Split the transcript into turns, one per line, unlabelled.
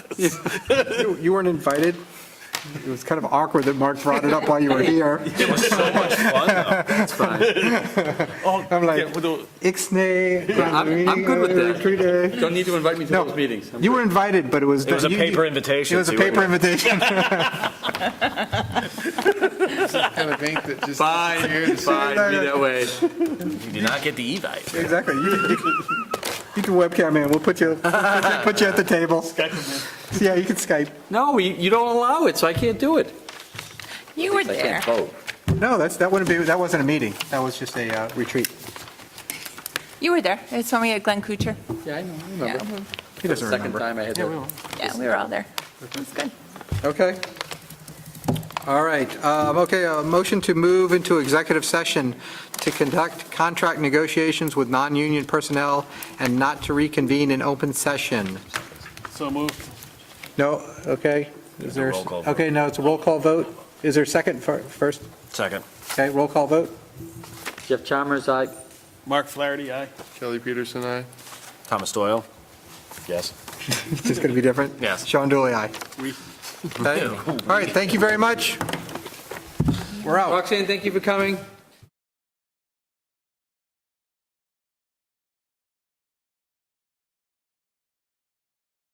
You you weren't invited. It was kind of awkward that Mark brought it up while you were here.
It was so much fun, though. That's fine. Oh,
I'm like,
Yeah, well,
Ixnay.
I'm- I'm good with that.
retreat, eh?
Don't need to invite me to
No.
those meetings. I'm
You
good.
were invited, but it was.
It was a
you-
paper invitation,
It was a
so you
paper invitation.
kind of ink that just
Fine,
disappears.
fine, be that way.
You did not get the e-bike.
Exactly. You you can- you can webcam in. We'll put you, put you- put you at the table. Yeah, you can Skype.
No, you you don't allow it, so I can't do it.
You were
I
there.
can't vote.
No, that's, that wouldn't be, that wasn't a meeting. That was just a uh, retreat.
You were there. It's when we had Glenn Kuchar.
Yeah, I know, I
Yeah,
remember.
He doesn't
Second
remember.
time I had
Yeah, we
that.
will.
yeah, we were all there. It was good.
Okay. All right. Um, Okay, a motion to move into executive session to conduct contract negotiations with non-union personnel and not to reconvene in open session.
So moved.
No, okay. Is
It's a
there,
roll call vote.
okay, no, it's a roll call vote. Is there a second fir- first?
Second.
Okay, roll call vote?
Jeff Chalmers, I.
Mark Flaherty, aye.
Kelly Peterson, I.
Thomas Doyle? Yes.
It's just going to be different?
Yes.
Sean Dooley, aye.
We-
Okay. All right, thank you very much. We're out.
Roxanne, thank you for coming.